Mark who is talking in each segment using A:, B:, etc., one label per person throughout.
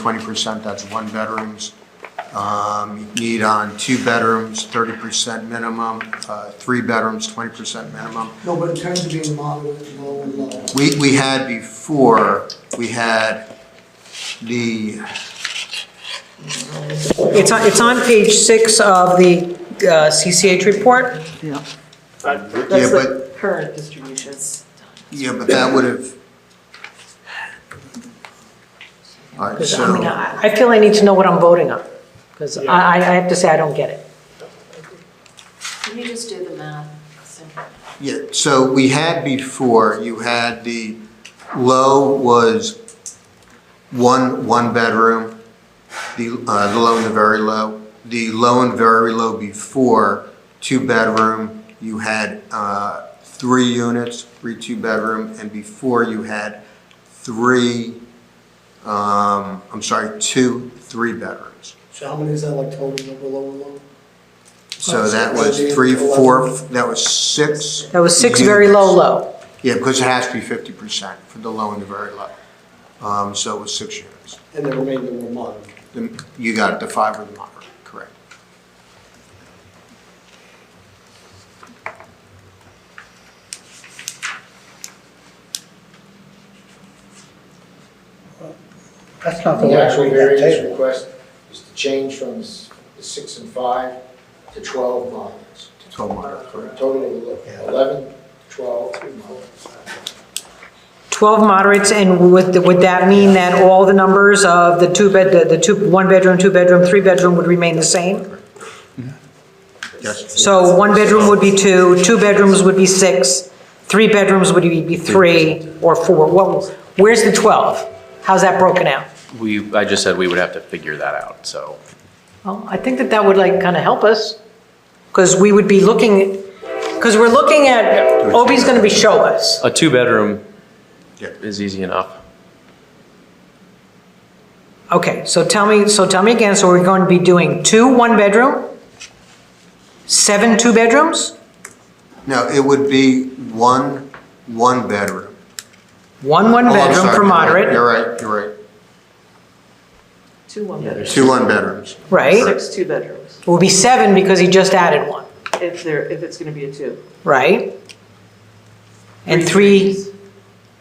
A: Twenty percent, that's one bedrooms. Um, you Need on two bedrooms, thirty percent minimum, uh, three bedrooms, twenty percent minimum.
B: No, but in terms of being moderate, low and low.
A: We, we had before, we had the,
C: It's on, it's on page six of the uh, CCH report.
A: yeah,
D: That's
A: but,
D: the current distributions.
A: yeah, but that would have. All right,
C: I mean,
A: so,
C: I I feel I need to know what I'm voting on, because I, I I have to say I don't get it.
D: Can you just do the math? So-
A: yeah, so we had before, you had the low was one, one bedroom, the, uh, the low and the very low. The low and very low before, two bedroom, you had, uh, three units, three two bedroom, and before you had three, um, I'm sorry, two, three bedrooms.
B: So how many is that like total number low and low?
A: So that was three, four, that was six.
C: That was six very low,
A: units.
C: low.
A: Yeah, because it has to be fifty percent for the low and the very low. Um, so it was six units.
B: And the remainder were moderate.
A: Then You got it, the five or the moderate, correct.
E: That's not the
F: The
E: way I
F: actual
E: read that
F: variance
E: table.
F: request is to change from s- the six and five to 12 models,
A: Twelve moderate,
F: for a
A: correct.
F: total of
E: Yeah.
F: 11, 12 models.
C: 12 moderates, and would, would that mean that all the numbers of the two bed, the- the two, one bedroom, two bedroom, three bedroom would remain the same?
A: Yes.
C: So one bedroom would be two, two bedrooms would be six, three bedrooms would be be three or four. What, where's the 12? How's that broken out?
G: We, I just said we would have to figure that out, so.
C: Well, I think that that would like kind of help us, because we would be looking, because we're looking at, Obi's going to be show us.
G: A two-bedroom
A: Yeah.
G: is easy enough.
C: Okay, so tell me, so tell me again, so we're going to be doing two one-bedroom, seven two-bedrooms,
A: No, it would be one, one bedroom.
C: one
A: Oh, I'm
C: one-bedroom
A: sorry,
C: for
A: you're right,
C: moderate,
A: You're right, you're right.
D: Two one bedrooms.
A: Two one bedrooms.
C: right?
D: Six two bedrooms,
C: It would be seven because he just added one,
D: if there, if it's gonna be a two.
C: right? And three,
D: threes.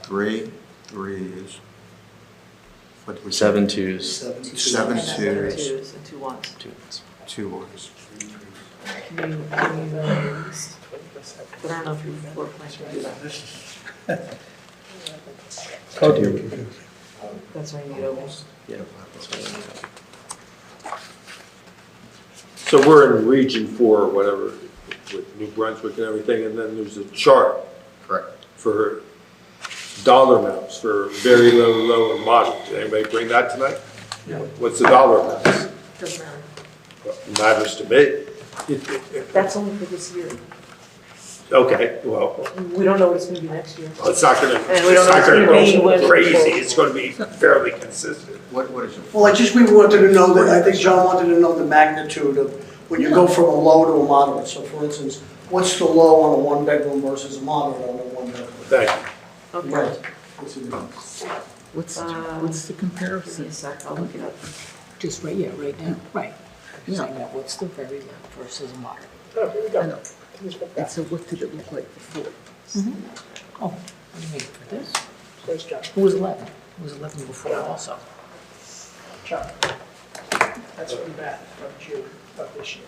A: Three, three is. What was it?
G: Seven twos,
A: Seven
D: Seven
A: twos,
D: twos and two ones.
G: two ones.
A: two ones.
D: Can you, can you, uh, but I don't know if your floor plan can do that.
E: Code-
D: That's why you need ovals.
H: So we're in region four, or whatever, with New Brunswick and everything, and then there's a chart
A: Correct.
H: for dollar amounts for very low, low, and moderate. Did anybody bring that tonight? Yeah. What's the dollar amount?
D: Doesn't matter.
H: Matters to me.
D: That's only for this year.
H: Okay, well,
D: We don't know what it's gonna be next year.
H: it's not gonna,
D: And we don't
H: it's not
D: know if
H: gonna
D: it's
H: go
D: gonna be
H: crazy,
D: what-
H: it's gonna be fairly consistent.
A: What, what is it?
B: Well, I just, we wanted to know that, I think John wanted to know the magnitude of, when you go from a low to a moderate. So for instance, what's the low on a one bedroom versus a moderate on a one bedroom?
H: Thank you.
D: Okay.
B: Right. What's the difference?
I: What's,
D: Uh,
I: what's the
D: Give me a
I: comparison?
D: sec, I'll look it up.
C: just right, yeah, right now, right.
I: Yeah.
C: Saying that what's the very low versus moderate?
I: I know. And so what did it look like before?
C: Oh, what do you mean, for this? Who was 11? Who was 11 before also?
B: That's what we had from June of this year.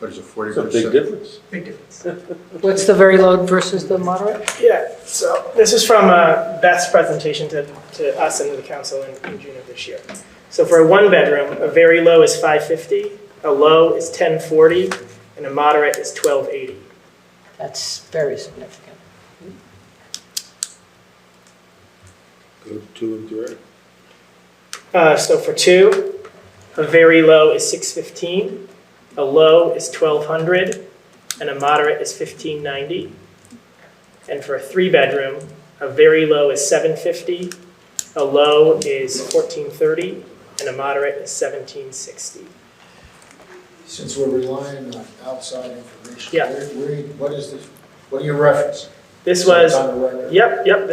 A: What is it, forty
H: It's a
A: percent?
H: big difference.
C: What's the very low versus the moderate?
J: Yeah, so this is from uh, Beth's presentation to, to us and to the council in, in June of this year. So for a one bedroom, a very low is 550, a low is 1040, and a moderate is 1280.
C: That's very significant.
H: Go to two and three.
J: Uh, so for two, a very low is 615, a low is 1200, and a moderate is 1590. And for a three bedroom, a very low is 750, a low is 1430, and a moderate is 1760.
F: Since we're relying on outside information,
J: Yeah.
F: where- where- what is this, what are your reference?
J: This was,
F: On the record.
J: yep, yep,